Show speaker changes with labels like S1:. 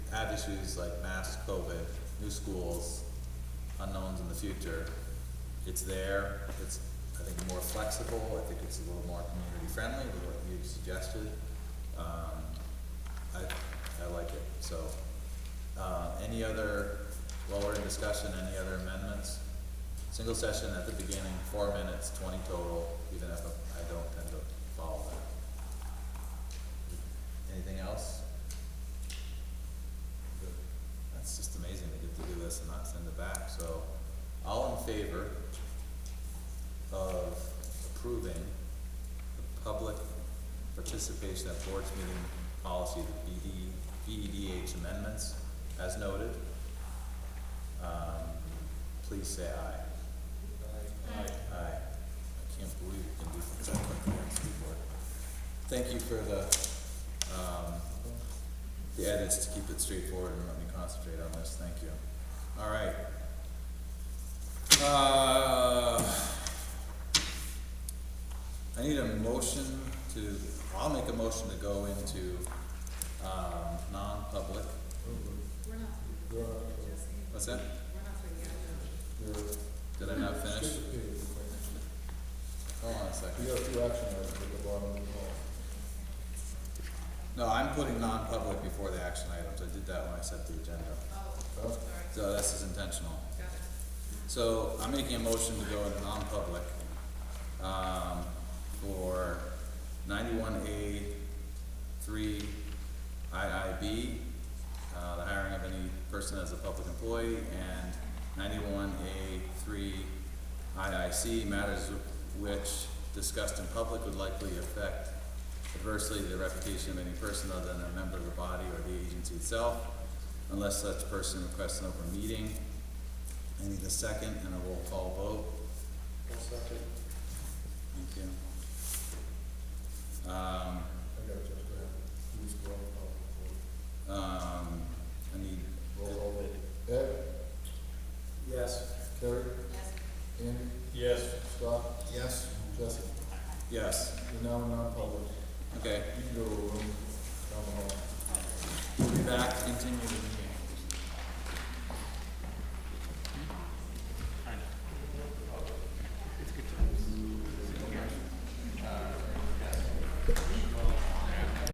S1: have issues like mass COVID, new schools, unknowns in the future, it's there, it's, I think, more flexible, I think it's a little more community friendly, with what you suggested. Um, I, I like it, so, uh, any other, while we're in discussion, any other amendments? Single session at the beginning, four minutes, twenty total, even if I don't tend to follow that. Anything else? That's just amazing, they get to do this and not send it back, so, all in favor of approving the public participation at board's meeting policy, the BD, BEDH E amendments as noted, um, please say aye. Aye. Aye. I can't believe we can do things like that on the school board. Thank you for the, um, the edits to keep it straightforward and let me concentrate on this, thank you. All right. Uh, I need a motion to, I'll make a motion to go into, um, non-public. What's that? Did I not finish? Hold on a
S2: You
S1: second.
S2: got two action items at the bottom of the call.
S1: No, I'm putting non-public before the action items, I did that when I set the agenda.
S2: Huh?
S1: So this is intentional. So I'm making a motion to go into non-public, um, for ninety-one A three IIB, uh, the hiring of any person as a public employee, and ninety-one A three IIC, matters which discussed in public would likely affect adversely the reputation of any person other than a member of the body or the agency itself, unless such person requests an open meeting. I need a second and a roll call vote. Thank you. Um,
S2: I got just to have, who's going to
S1: um, I need,
S2: call? Roll call vote. Ed? Yes. Terry? Yes. Andy? Yes. Scott? Yes. Jesse?
S1: yes,
S2: You're now in non-public.
S1: okay,
S2: You can go to a room down the hall.
S1: we'll be back, continue the meeting.